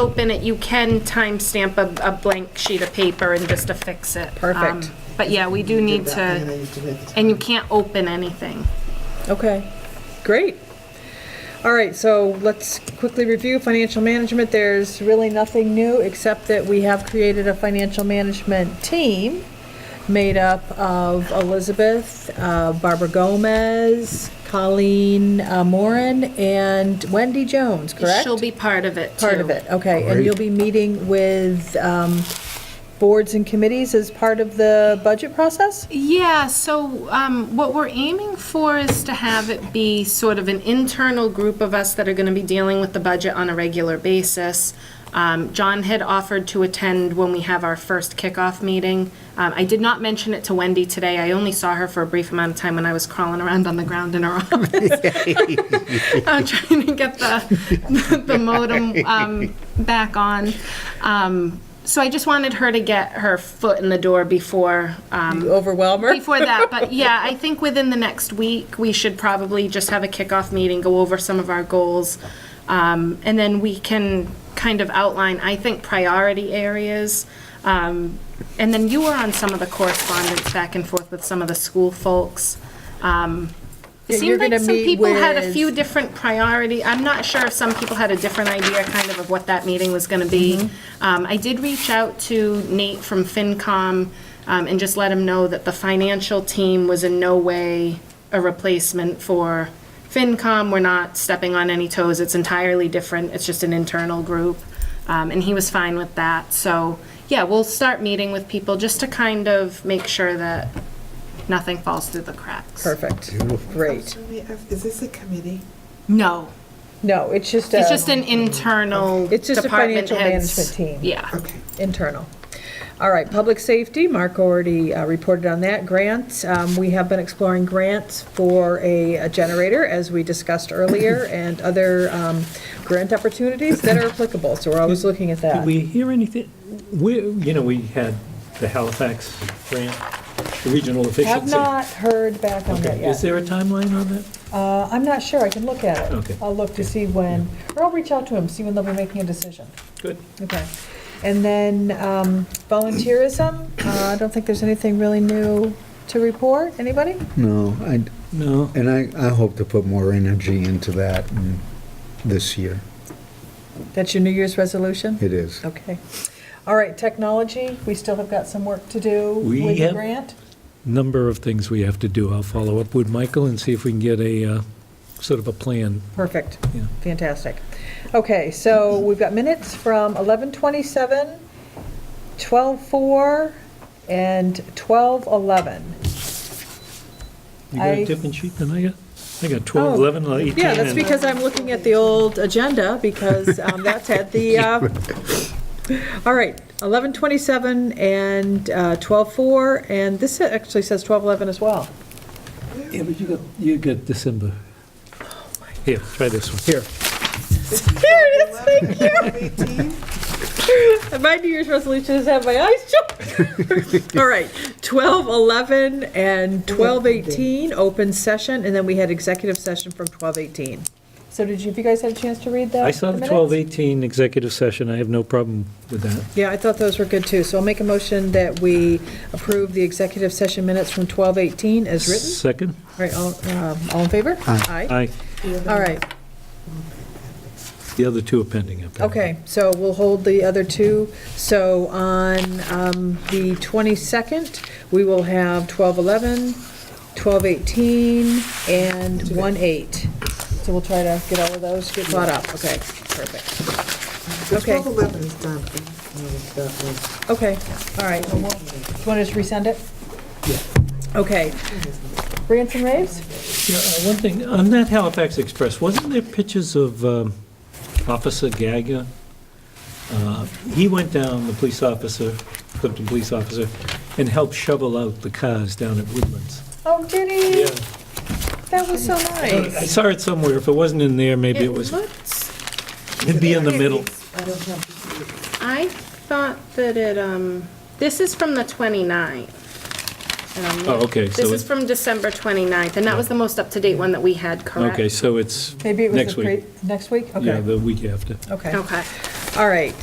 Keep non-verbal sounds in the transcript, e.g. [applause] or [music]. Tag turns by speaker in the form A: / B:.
A: open it, you can timestamp a, a blank sheet of paper and just affix it.
B: Perfect.
A: Um, But yeah, we do need to, and you can't open anything.
B: Okay, great. All right, so let's quickly review financial management. There's really nothing new, except that we have created a financial management team made up of Elizabeth, uh, Barbara Gomez, Colleen uh, Moran, and Wendy Jones, correct?
A: She'll be part of it too.
B: Part of it, okay. And
C: Great.
B: you'll be meeting with um, boards and committees as part of the budget process?
A: Yeah, so um, what we're aiming for is to have it be sort of an internal group of us that are going to be dealing with the budget on a regular basis. Um, John had offered to attend when we have our first kickoff meeting. Um, I did not mention it to Wendy today. I only saw her for a brief amount of time when I was crawling around on the ground in her [laughs] office. I'm trying to get the, [laughs] the modem um, back on. Um, So I just wanted her to get her foot in the door before um,
B: Overwhelm her?
A: before that, but yeah, I think within the next week, we should probably just have a kickoff meeting, go over some of our goals. Um, and then we can kind of outline, I think, priority areas. Um, and then you were on some of the correspondence back and forth with some of the school folks. Um, it
B: Yeah, you're
A: seemed like
B: gonna
A: some
B: meet
A: people had a
B: with-
A: few different priority, I'm not sure if some people had a different idea kind of of what that meeting was going to be. Um, I did reach out to Nate from FinCom um, and just let him know that the financial team was in no way a replacement for FinCom. We're not stepping on any toes, it's entirely different, it's just an internal group. Um, And he was fine with that, so, yeah, we'll start meeting with people just to kind of make sure that nothing falls through the cracks.
B: Perfect, great.
D: Is this a committee?
A: No.
B: No, it's just uh,
A: It's
B: a
A: just an internal.
B: It's just a
A: department
B: financial
A: heads.
B: management team.
A: Yeah.
D: Okay.
B: internal. All right, public safety, Mark already uh, reported on that. Grants, um, we have been exploring grants for a a generator, as we discussed
E: [coughs]
B: earlier, and other um, grant opportunities that are applicable, so we're always looking at
E: Did
B: that.
E: we hear anything? We, you know, we had the Halifax grant, the regional
B: Have
E: efficiency.
B: not heard back on that
E: Okay,
B: yet.
E: Is there a timeline on that?
B: Uh, I'm not sure, I can look at
E: Okay.
B: it. I'll look to see when, or I'll reach out to them, see when they'll be making a decision.
E: Good.
B: Okay. And then um, volunteerism, uh, I don't think there's anything really new to report. Anybody?
C: No, I,
E: No.
C: and I, I hope to put more energy into that mm, this year.
B: That's your New Year's resolution?
C: It is.
B: Okay. All right, technology, we still have got some work to do
E: We
B: with the
E: have-
B: grant.
E: Number of things we have to do. I'll follow up with Michael and see if we can get a, uh, sort of a plan.
B: Perfect,
E: Yeah.
B: fantastic. Okay, so we've got minutes from 11:27, 12:04, and 12:11.
E: You got
B: I- Oh,
E: a different sheet than I got? I got 12, 11, uh, 18.
B: Yeah, that's
E: and-
B: because I'm looking at the old agenda, because um, that's had the, uh,
E: [laughs]
B: all right, 11:27 and uh, 12:04, and this actually says 12:11 as well.
E: Yeah, but uh, you got, you got December. Here, try this one. Here.
B: There it is.
D: thank you.
B: My New Year's resolution is have my eyes shut. All right, 12, 11, and 12, 18, open session, and then we had executive session from 12, 18. So did you, have you guys had a chance to read that?
E: I saw
B: Uh,
E: the
B: minutes?
E: 1218 executive session. I have no problem with that.
B: Yeah, I thought those were good, too. So I'll make a motion that we approve the executive session minutes from 12, 18 as written.
E: Second?
B: All right, all, um, all in favor? Aye.
E: Aye.
B: All right,
E: The other two are pending. apparently.
B: okay, so we'll hold the other two. So on um, the 22nd, we will have 1211, 1218, and 18. So we'll try to get all of those, get caught up, okay, perfect. Okay.
D: 1211 is done. That
B: Okay, all right, do you want to just resend it? Yeah. Okay. Rants and raves?
E: Yeah, uh, one thing, on that Halifax Express, wasn't there pictures of um, Officer Gaga? Uh, He went down, the police officer, Clifton police officer, and helped shovel out the cars down at Woodlands.
B: Oh, did he? That was so
E: I
B: nice.
E: saw it somewhere, if it wasn't in there, maybe it was,
A: looks,
E: it'd be in the middle.
D: I don't have.
A: I thought that it, um, this is from the 29th. And I'm
E: Oh,
A: look-
E: okay, so
A: This is
E: it-
A: from December 29th, and that was the most up-to-date one that we had, correct?
E: Okay, so it's
B: Maybe it was
E: next
B: the
E: week.
B: pre- next week?
E: Yeah,
B: Okay,
E: the week after.
B: okay.
A: Okay.
B: All All right,